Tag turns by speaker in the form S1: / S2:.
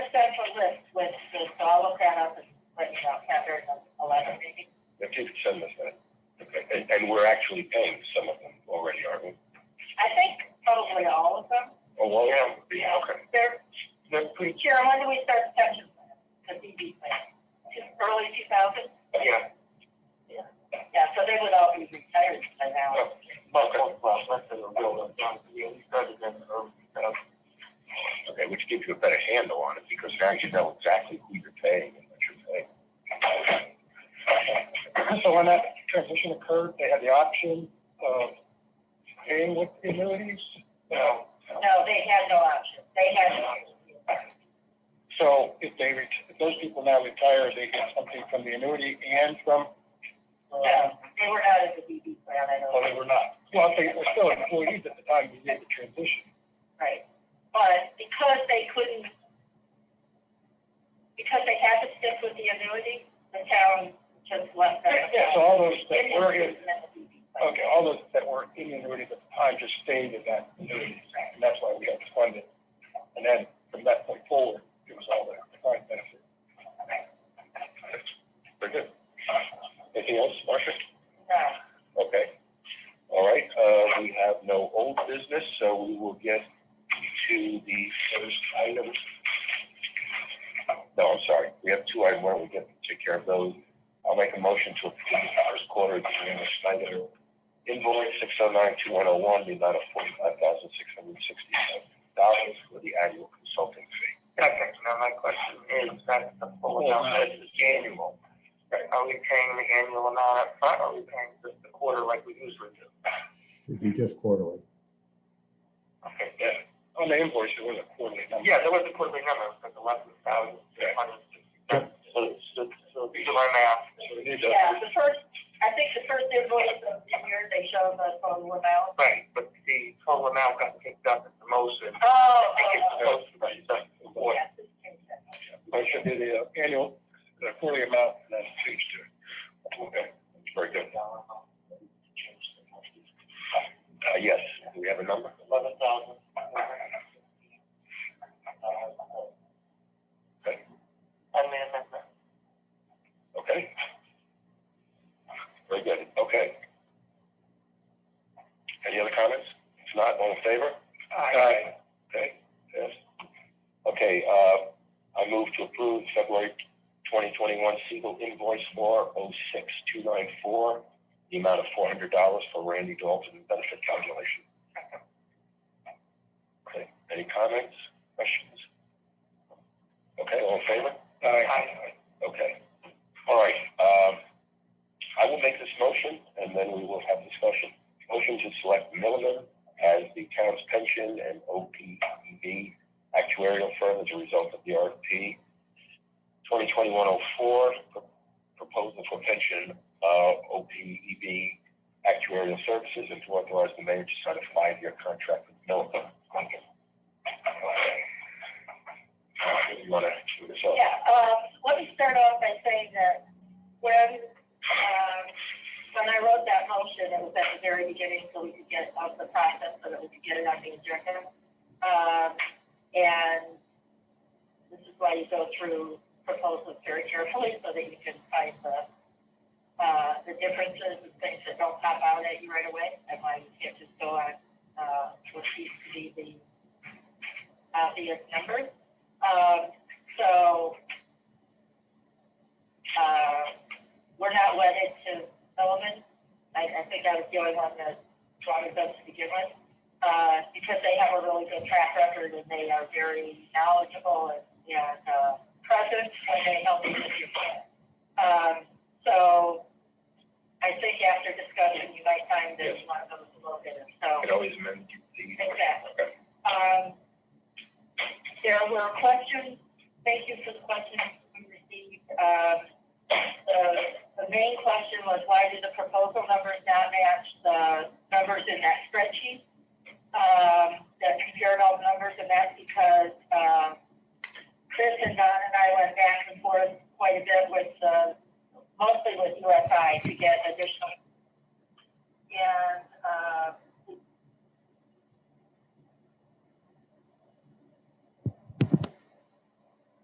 S1: up a list with this, so I'll look that up and let you know, chapter eleven maybe.
S2: If you could send us that. Okay, and, and we're actually paying some of them already, aren't we?
S1: I think probably all of them.
S2: Oh, well, yeah, yeah, okay.
S1: They're,
S2: They're pretty,
S1: Sharon, when do we start the pension plan, the DB plan? Just Early two thousand?
S3: Oh,
S2: yeah,
S1: Yeah, so they would all be retired by now.
S4: But that's last, that's the real, that's we started in the early two thousands.
S2: okay, which gives you a better handle on it, because now you know exactly who you're paying and what you're paying.
S3: So when that transition occurred, they had the option of paying with the annuities.
S4: Now,
S1: No, they had no option. They had no option.
S3: So if they, ret- if those people now retire, they get something from the annuity and from,
S2: Oh.
S3: uh,
S1: No, they were out of the DB plan, I
S3: well,
S1: know.
S3: they were not. Well, they were still employees at the time we did the transition.
S1: Right. But because they couldn't, because they had to stick with the annuity, the town just left that.
S3: Yeah, so all those that
S1: It
S3: were
S1: was
S3: in,
S1: in the DB plan.
S3: okay, all those that were in the annuities at the time just stayed in that annuity. And that's why we had to fund it. And then from that point forward, it was all there, defined benefit.
S2: Very good. Anything else, Marcia?
S1: No.
S2: Okay. All right, uh, we have no old business, so we will get to the first item. No, I'm sorry, we have two items, why don't we get, take care of those? I'll make a motion to approve the first quarter agreement, Schneider invoice six oh nine two one oh one, the amount of forty-five thousand six hundred sixty-seven dollars for the annual consulting fee.
S4: second, now my question is, that's the full
S2: Oh,
S4: amount, that's the annual. Right, Are we paying the annual amount up front? or are we paying just the quarter like we usually do?
S5: It'd be just quarterly.
S4: Okay,
S2: Yeah. On the invoice, it was a quarterly number.
S4: yeah, there was a quarterly number, it was eleven thousand, six hundred and sixty seven. So, so, so, these are my math.
S2: So it is,
S1: Yeah,
S2: uh,
S1: the first, I think the first invoice of the year, they show the total amount.
S4: Right, but the total amount got picked up at the motion.
S1: Oh,
S4: I think it's
S1: oh,
S4: supposed to be just
S1: oh,
S4: the quarter.
S1: yes, it's changed that.
S3: Or should be the uh, annual, the quarterly amount, and then change to
S2: Okay, very good. Uh, yes, do we have a number?
S4: Eleven thousand. I mean, that's-
S2: Okay. Very good, okay. Any other comments? If not, all in favor?
S3: Aye.
S2: Okay, yes. Okay, uh, I move to approve February twenty twenty-one Siegel invoice four oh six two nine four, the amount of four hundred dollars for Randy Dalton benefit calculation. Okay, any comments, questions? Okay, all in favor?
S4: Aye.
S2: Okay. All right, um, I will make this motion and then we will have discussion. Motion to select Milliman as the town's pension and OPEB actuarial firm as a result of the RFP 2021-04, pro- proposal for pension, uh, OPEB actuarial services and to authorize the mayor to sign a five-year contract with Milliman. Okay. Uh, You want to, do this off?
S1: Yeah, um, let me start off by saying that when, um, when I wrote that motion, it was at the very beginning, so we could get out the process, so that we could get it on the agenda. Um, and this is why you go through proposals very carefully, so that you can find the, uh, the differences and things that don't pop out at you right away, and why you can't just go on, uh, what seems to be the obvious numbers. Um, so, uh, we're not wedded to Sullivan. I, I think I was the only one that wanted them to begin with, uh, because they have a really good track record and they are very knowledgeable and, and, uh, present when they help you with your plan. Um, so I think after discussion, you might find that
S2: Yes.
S1: one of those will get it, so.
S2: It always meant the.
S1: Exactly. Um, there were questions, thank you for the questions we received. Um, the, the main question was why did the proposal numbers not match the numbers in that spreadsheet? Um, that compared all the numbers and that's because, um, Chris and Don and I went back and forth quite a bit with, uh, mostly with USI to get additional. And, uh,